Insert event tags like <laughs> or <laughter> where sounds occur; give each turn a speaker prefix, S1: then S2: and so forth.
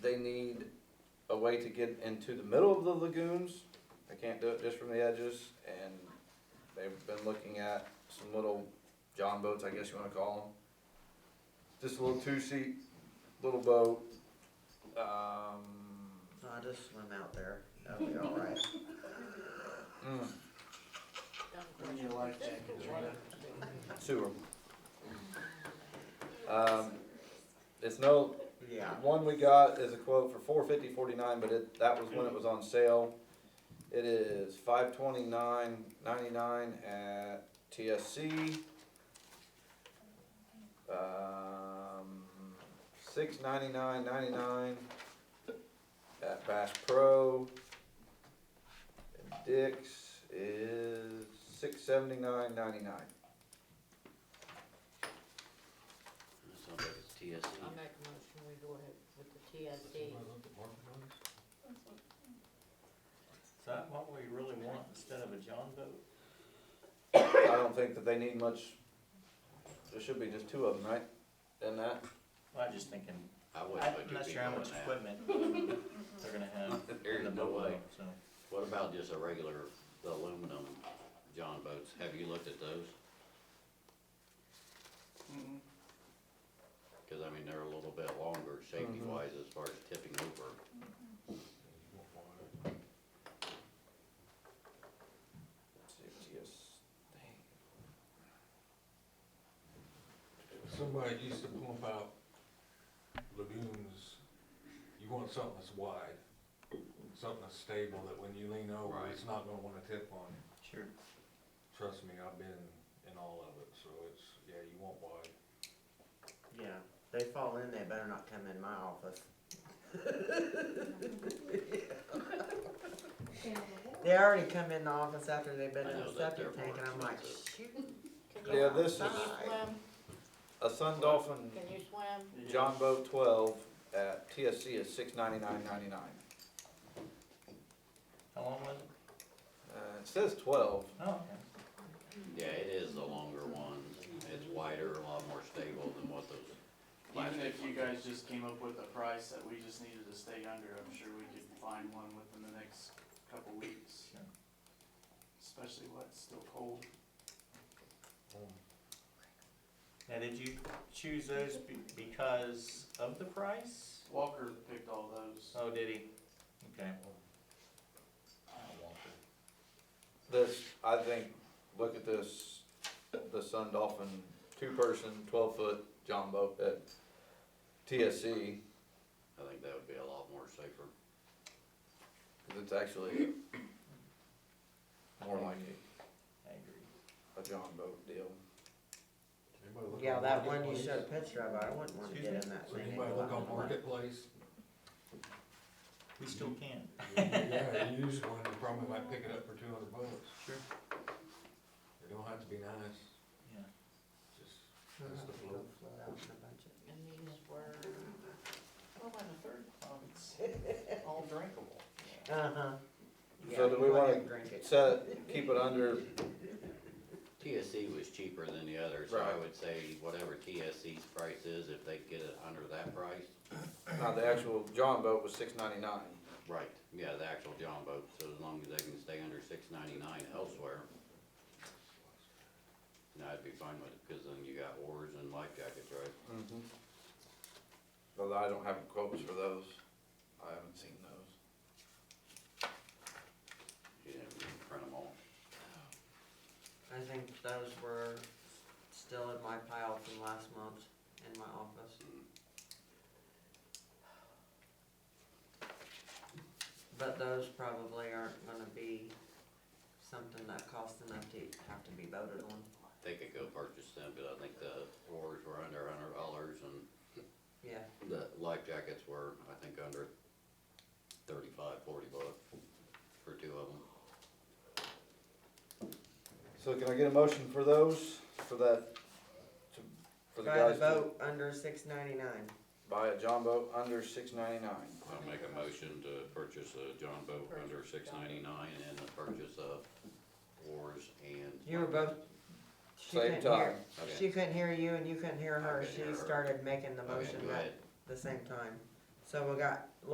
S1: way to get into the middle of the lagoons. They can't do it just from the edges, and they've been looking at some little john boats, I guess you wanna call them. Just a little two-seat, little boat, um,
S2: I just swim out there, that'll be all
S3: <laughs>
S2: right.
S1: mm,
S4: Bring your life jacket, Gina.
S1: sewer. Um, it's no,
S2: Yeah,
S1: One we got is a quote for four fifty forty-nine, but it, that was when it was on sale. It is five twenty-nine ninety-nine at TSC. Um, six ninety-nine ninety-nine at Bass Pro. And Dick's is six seventy-nine ninety-nine.
S3: That sounds like it's TSC.
S4: I make a motion, we go ahead with the TSD.
S5: Is that what we really want instead of a John boat?
S1: I don't think that they need much, there should be just two of them, right? Then that.
S5: I'm just thinking,
S3: I wouldn't put
S5: I'm
S3: two
S5: not sure how
S3: people
S5: much
S3: in that. <laughs>
S5: equipment they're gonna have
S3: There
S5: in the
S3: is no
S5: boat,
S3: way.
S5: so.
S3: What about just a regular aluminum John boats? Have you looked at those? Cause I mean, they're a little bit longer safety
S1: Mhm.
S3: wise as far as tipping over.
S6: Somebody used to pump out lagoons, you want something that's wide, something that's stable, that when you lean over, it's not gonna wanna tip on you.
S5: Sure.
S6: Trust me, I've been in all of it, so it's, yeah, you want wide.
S2: yeah, they fall in, they better not come in my office. They already come in the office after they've been
S3: I
S2: in
S3: know
S2: the
S3: that they're
S2: septic tank, and I'm
S3: more
S2: like,
S3: expensive.
S2: shoot.
S4: Can you-
S1: Yeah, this is-
S4: Can you swim?
S1: A Sun Dolphin
S4: Can you swim?
S1: John Boat twelve at TSC is six ninety-nine ninety-nine.
S5: How long was it?
S1: Uh, it says twelve.
S5: Oh, okay.
S3: Yeah, it is the longer one. It's wider, a lot more stable than what those
S7: Even
S3: plastic
S7: if you
S3: ones.
S7: guys just came up with a price that we just needed to stay under, I'm sure we could find one within the next couple weeks.
S5: Sure.
S7: Especially what, it's still cold.
S5: Now, did you choose those be- because of the price?
S7: Walker picked all those.
S5: Oh, did he? Okay.
S1: This, I think, look at this, the Sun Dolphin, two-person, twelve-foot John Boat at TSC,
S3: I think that would be a lot more safer.
S1: cause it's actually more like
S5: I agree.
S1: a, a John Boat deal.
S6: Anybody look
S2: Yeah,
S6: on
S2: that one you
S6: Marketplace?
S2: showed a picture of, I wouldn't wanna
S5: Excuse
S2: get
S5: me?
S2: in that
S6: So
S2: thing.
S6: Anybody look on Marketplace?
S5: We still can.
S6: Yeah, <laughs> you use one, you probably might pick it up for two hundred bucks.
S5: Sure.
S6: It don't have to be nice,
S5: Yeah.
S6: just,
S2: No, no,
S6: That's the
S2: don't
S6: float.
S2: float out in the budget.
S4: And these were,
S7: Oh, and the third, um, it's all drinkable.
S2: Uh-huh.
S1: So
S2: Yeah,
S1: do
S2: you
S1: we
S2: go
S1: wanna
S2: ahead and drink it.
S1: Set, keep it under,
S3: TSC was cheaper than the others, so I
S1: Right.
S3: would say whatever TSC's price is, if they get it under that price,
S1: now uh, the actual John Boat was six ninety-nine.
S3: right, yeah, the actual John boat, so as long as they can stay under six ninety-nine elsewhere. And I'd be fine with it, cause then you got oars and life jackets, right?
S1: Mm-hmm. Although I don't have quotes for those, I haven't seen those.
S3: You didn't print them all.
S2: I think those were still in my pile from last month in my office. But those probably aren't gonna be something that costs enough to have to be voted on.
S3: They could go purchase them, but I think the oars were under a hundred dollars and
S2: Yeah,
S3: the life jackets were, I think, under thirty-five, forty bucks for two of them.
S1: So can I get a motion for those, for that, to, for the
S2: try to
S1: guys to
S2: vote under six ninety-nine.
S1: buy a John boat under six ninety-nine?
S3: I'll make a motion to purchase a John boat under six ninety-nine and the purchase of oars and.
S2: You were both, she
S1: Same
S2: couldn't
S1: time,
S2: hear, she
S3: Okay,
S2: couldn't hear you and you couldn't hear her,
S3: I couldn't
S2: she
S3: hear her.
S2: started making the
S3: okay,
S2: motion
S3: go
S2: at
S3: ahead.
S2: the same time. So we got